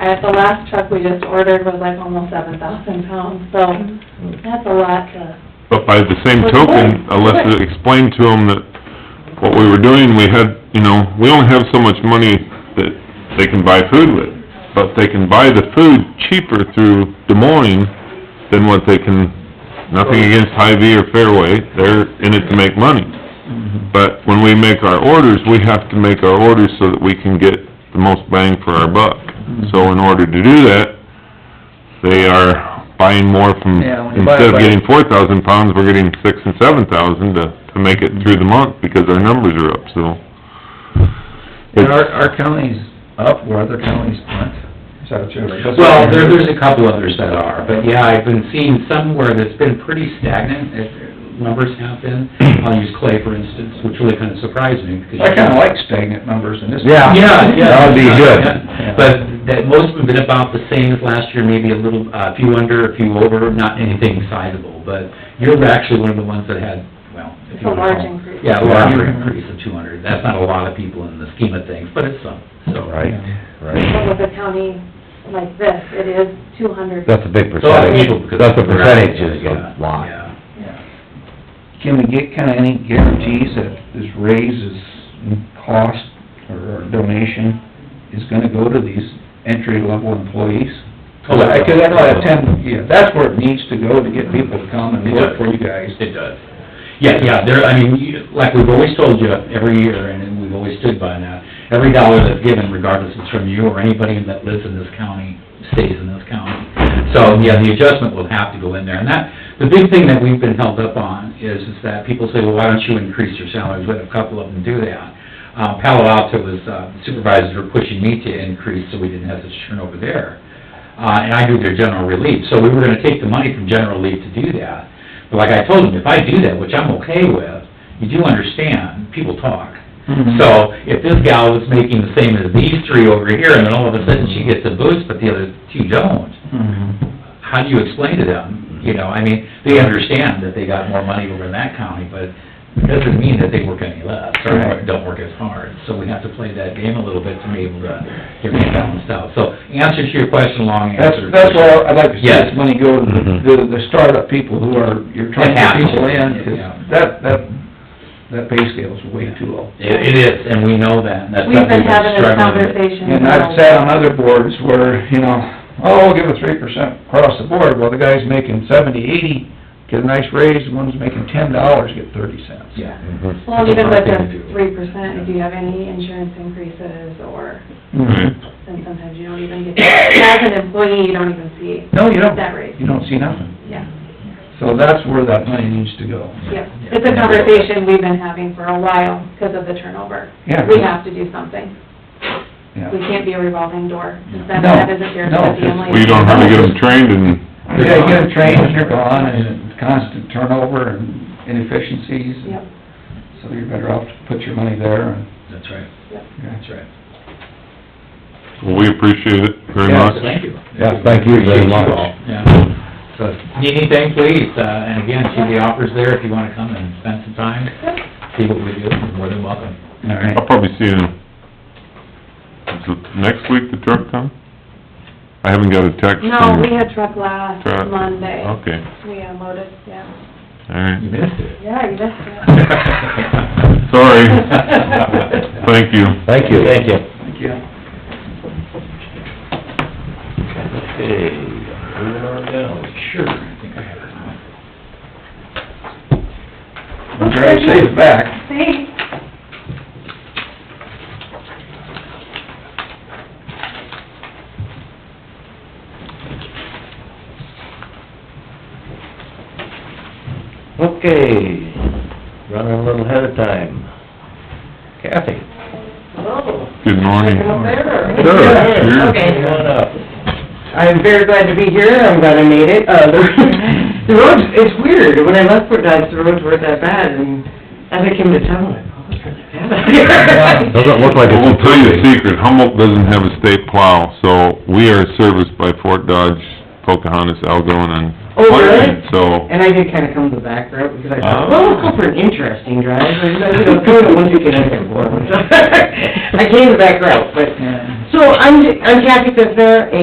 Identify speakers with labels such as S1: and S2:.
S1: At the last truck we just ordered was like almost seven thousand pounds, so
S2: Mm-hmm.
S1: that's a lot to,
S3: But by the same
S1: But
S3: token,
S1: what-
S3: unless
S1: what-
S3: it explained to them that what we were doing, we had, you know, we only have so much money that they can buy food with, but they can buy the food cheaper through Des Moines than what they can, nothing against Hy-Vee or Fairway, they're in it to make money.
S1: Mm-hmm.
S3: But when we make our orders, we have to make our orders so that we can get the most bang for our buck.
S1: Mm-hmm.
S3: So in order to do that, they are buying more from,
S2: Yeah, when you buy
S3: instead of
S2: by-
S3: getting four thousand pounds, we're getting six and seven thousand to, to make it through the month because our numbers are up, so.
S2: And our, our county's up where other counties aren't.
S4: Is that true? That's what
S5: Well,
S4: I
S5: there,
S4: heard.
S5: there's a couple others that are, but yeah, I've been seeing somewhere that's been pretty stagnant, if numbers have been. I'll use Clay, for instance, which really kind of surprised me, because...
S2: I kinda like stagnant numbers in this.
S5: Yeah, yeah.
S2: That would be good.
S5: Yeah. But that, most of them have been about the same as last year, maybe a little, uh, a few under, a few over, not anything sizable, but you're actually one of the ones that had, well... if
S1: It's a
S5: you wanna
S1: large
S5: call-
S1: increase.
S5: Yeah, a larger increase of two hundred. That's not a lot of people in the scheme of things, but it's some,
S1: but
S5: so...
S1: with a county like this, it is two hundred.
S6: That's a big
S5: So I think people-
S6: percentage. That's a percentage is
S5: Yeah,
S6: a lot.
S5: yeah.
S2: Can we get kinda any guarantees that this raise is in cost or donation is gonna go to these entry-level employees?
S5: Oh,
S2: Cause I, cause I know that ten, yeah, that's where it needs to go to get people to come and work for you guys.
S5: It does. Yeah, yeah, there, I mean, you- like we've always told you every year, and we've always stood by that, every dollar that's given, regardless if it's from you or anybody that lives in this county, stays in this county. So, yeah, the adjustment will have to go in there, and that, the big thing that we've been held up on is, is that people say, well, why don't you increase your salaries? We had a couple of them do that. Uh, Palo Alto was, uh, supervisors were pushing me to increase, so we didn't have such turnover there. Uh, and I do their general relief, so we were gonna take the money from general relief to do that. But like I told them, if I do that, which I'm okay with, you do understand, people talk.
S2: Mm-hmm.
S5: So if this gal was making the same as these three over here, and then all of a sudden she gets a boost, but the other two don't,
S2: Mm-hmm.
S5: how do you explain to them? You know, I mean, they understand that they got more money over in that county, but it doesn't mean that they work any less, or
S2: Right.
S5: don't work as hard. So we have to play that game a little bit to be able to get it balanced out. So answer to your question, long
S2: That's,
S5: answer.
S2: that's why I'd like to see
S5: Yes. Mm-hmm.
S2: this money go to the, the- the startup people who are, you're trying to get people in, 'cause
S5: Yeah.
S2: that, that, that pay scale's way too low.
S5: It, it is, and we know that, and that's
S1: We've
S5: something
S1: been
S5: that's
S1: having this
S5: struggling with.
S1: conversation.
S2: And I've sat on other boards where, you know, oh, we'll give a three percent across the board, well, the guy's making seventy, eighty, get a nice raise, one's making ten dollars, get thirty cents.
S5: Yeah.
S2: Mm-hmm.
S1: Well, even with
S5: Hard thing to
S1: the
S5: do.
S1: three percent, if you have any insurance increases or,
S2: Mhm.
S1: then sometimes you don't even get, as an employee, you don't even see.
S2: No, you don't,
S1: That raise.
S2: you don't see nothing,
S1: Yeah,
S2: so that's where that money needs to go.
S1: yeah. It's a conversation we've been having for a while because of the turnover.
S2: Yeah.
S1: We have to do something.
S2: Yeah.
S1: We can't be a revolving door. 'cause Then
S2: No,
S1: that isn't fair to
S2: no,
S1: the
S2: it's-
S1: family.
S3: We don't have to get them trained and,
S2: You gotta get them trained, and you're gone, and constant turnover and inefficiencies,
S1: Yep,
S2: so you're better off to put your money there and
S5: That's right,
S1: yep.
S5: that's right.
S3: we appreciate it very
S2: Yeah.
S3: much.
S2: Yes.
S5: Thank you.
S6: Yeah, thank you very much.
S5: Yeah. So, need anything, please, uh, and again, see the offers there if you wanna come and spend some time, see what we do, you're more than welcome.
S2: All right.
S3: I'll probably see you in, is it next week the truck come? I haven't got a text
S1: No,
S3: from...
S1: we had truck last
S3: Truck.
S1: Monday.
S3: Okay,
S1: We unloaded, yeah.
S3: all right.
S5: You missed it.
S1: Yeah, you missed it.
S3: Sorry. Thank you.
S6: Thank you. Thank you.
S2: Thank you.
S5: Sure, I think I have it.
S2: We'll try to save it back.
S1: Thanks.
S6: Okay, running a little ahead of time. Kathy?
S3: Good morning.
S7: Sure.
S3: Sure.
S7: Okay.
S6: Come on up.
S7: I'm very glad to be here, I'm glad I made it. Uh, the, the roads, it's weird, when I left Fort Dodge, the roads weren't that bad, and as I came to town, I'm like, oh, it's really bad out here.
S6: Doesn't look like
S3: Well,
S6: it's...
S3: we'll tell you a secret, Humboldt doesn't have a state plow, so we are serviced by Fort Dodge, Pocahontas, Algonah, and
S7: Oh, really?
S3: appointment, so.
S7: And I did kinda come to the back route, because I
S3: Oh.
S7: thought, well, let's go for an interesting drive, and then, you know, through it once you get in there, boy. I came to the back route, but, so I'm, I'm Kathy Fitzner,